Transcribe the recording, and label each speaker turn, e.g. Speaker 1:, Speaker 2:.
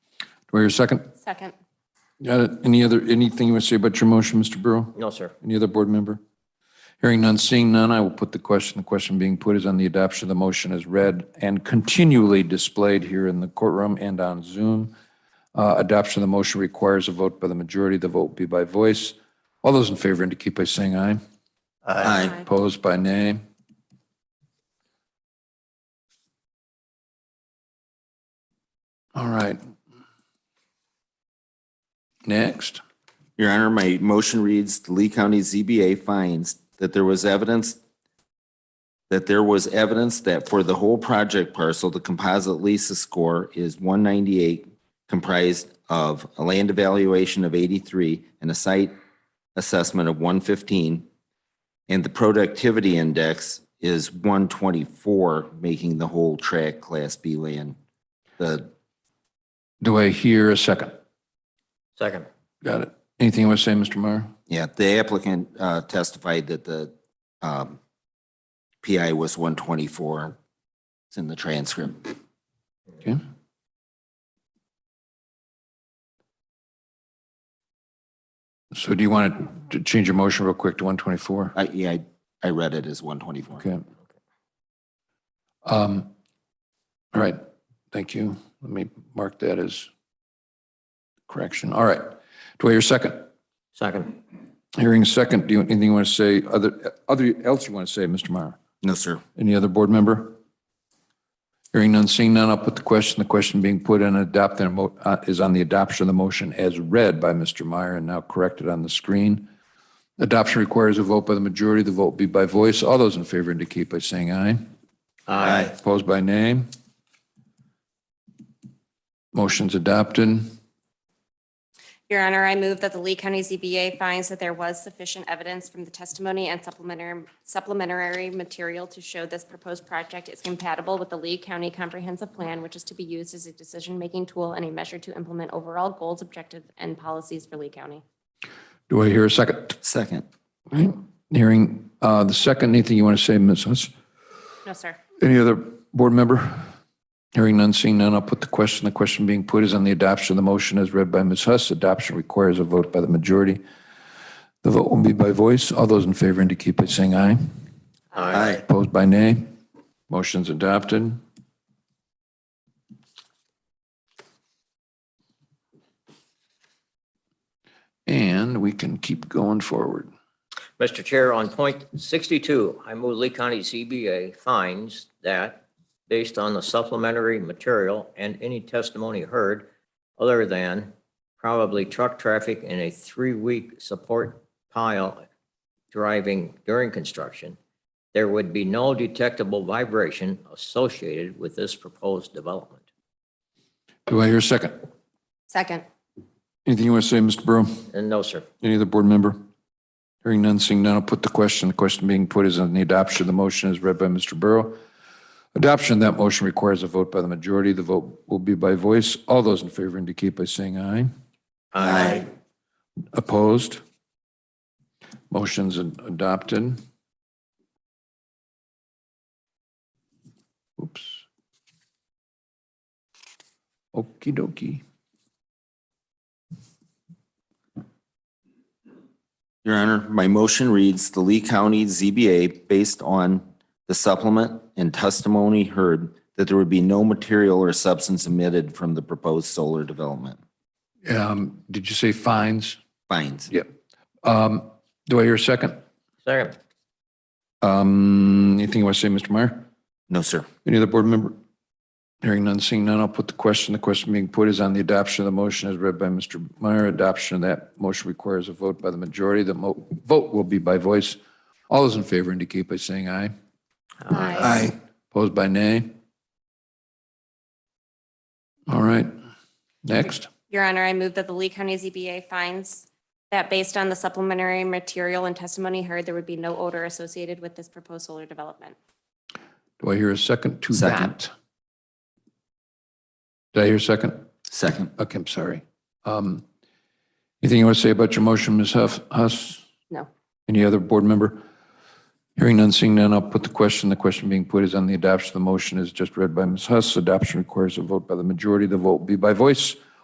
Speaker 1: Do I hear a second?
Speaker 2: Second.
Speaker 1: Got it. Any other, anything you want to say about your motion, Mr. Burrow?
Speaker 3: No, sir.
Speaker 1: Any other board member? Hearing none, seeing none, I will put the question. The question being put is on the adoption of the motion as read and continually displayed here in the courtroom and on Zoom. Uh, Adoption of the motion requires a vote by the majority. The vote be by voice. All those in favor indicate by saying aye.
Speaker 3: Aye.
Speaker 1: Opposed by nay. All right. Next.
Speaker 4: Your Honor, my motion reads, the Lee County ZBA finds that there was evidence that there was evidence that for the whole project parcel, the composite Lisa score is one ninety-eight, comprised of a land evaluation of eighty-three and a site assessment of one fifteen. And the productivity index is one twenty-four, making the whole tract Class B land. The
Speaker 1: Do I hear a second?
Speaker 3: Second.
Speaker 1: Got it. Anything you want to say, Mr. Meyer?
Speaker 4: Yeah, the applicant uh, testified that the um, PI was 124. It's in the transcript.
Speaker 1: Okay. So do you want to change your motion real quick to 124?
Speaker 4: I, yeah, I- I read it as 124.
Speaker 1: Okay. Um, All right, thank you. Let me mark that as correction. All right. Do I hear a second?
Speaker 3: Second.
Speaker 1: Hearing a second, do you, anything you want to say, other, other, else you want to say, Mr. Meyer?
Speaker 4: No, sir.
Speaker 1: Any other board member? Hearing none, seeing none, I'll put the question, the question being put and adopted emo- uh, is on the adoption of the motion as read by Mr. Meyer and now corrected on the screen. Adoption requires a vote by the majority. The vote be by voice. All those in favor indicate by saying aye.
Speaker 3: Aye.
Speaker 1: Opposed by name? Motion's adopted.
Speaker 2: Your Honor, I move that the Lee County ZBA finds that there was sufficient evidence from the testimony and supplementary, supplementary material to show this proposed project is compatible with the Lee County Comprehensive Plan, which is to be used as a decision-making tool and a measure to implement overall goals, objectives, and policies for Lee County.
Speaker 1: Do I hear a second?
Speaker 4: Second.
Speaker 1: Hearing uh, the second, anything you want to say, Ms. Huss?
Speaker 2: No, sir.
Speaker 1: Any other board member? Hearing none, seeing none, I'll put the question. The question being put is on the adoption of the motion as read by Ms. Huss. Adoption requires a vote by the majority. The vote will be by voice. All those in favor indicate by saying aye.
Speaker 3: Aye.
Speaker 1: Opposed by nay. Motion's adopted. And we can keep going forward.
Speaker 3: Mr. Chair, on point 62, I move Lee County CBA finds that based on the supplementary material and any testimony heard other than probably truck traffic in a three-week support pile driving during construction, there would be no detectable vibration associated with this proposed development.
Speaker 1: Do I hear a second?
Speaker 2: Second.
Speaker 1: Anything you want to say, Mr. Burrow?
Speaker 3: And no, sir.
Speaker 1: Any other board member? Hearing none, seeing none, I'll put the question. The question being put is on the adoption of the motion as read by Mr. Burrow. Adoption of that motion requires a vote by the majority. The vote will be by voice. All those in favor indicate by saying aye.
Speaker 3: Aye.
Speaker 1: Opposed? Motion's ad- adopted. Oops. Okey dokey.
Speaker 4: Your Honor, my motion reads, the Lee County ZBA, based on the supplement and testimony heard, that there would be no material or substance emitted from the proposed solar development.
Speaker 1: Um, Did you say fines?
Speaker 4: Finds.
Speaker 1: Yep. Um, Do I hear a second?
Speaker 3: Second.
Speaker 1: Um, Anything you want to say, Mr. Meyer?
Speaker 4: No, sir.
Speaker 1: Any other board member? Hearing none, seeing none, I'll put the question. The question being put is on the adoption of the motion as read by Mr. Meyer. Adoption of that motion requires a vote by the majority. The mo- vote will be by voice. All those in favor indicate by saying aye. Opposed by nay? All right, next.
Speaker 2: Your Honor, I move that the Lee County ZBA finds that based on the supplementary material and testimony heard, there would be no odor associated with this proposed solar development.
Speaker 1: Do I hear a second to
Speaker 4: Second.
Speaker 1: that? Did I hear a second?
Speaker 4: Second.
Speaker 1: Okay, I'm sorry. Um, Anything you want to say about your motion, Ms. Huff- Huss?
Speaker 2: No.
Speaker 1: Any other board member? Hearing none, seeing none, I'll put the question. The question being put is on the adoption. The motion is just read by Ms. Huss. Adoption requires a vote by the majority. The vote will be by voice.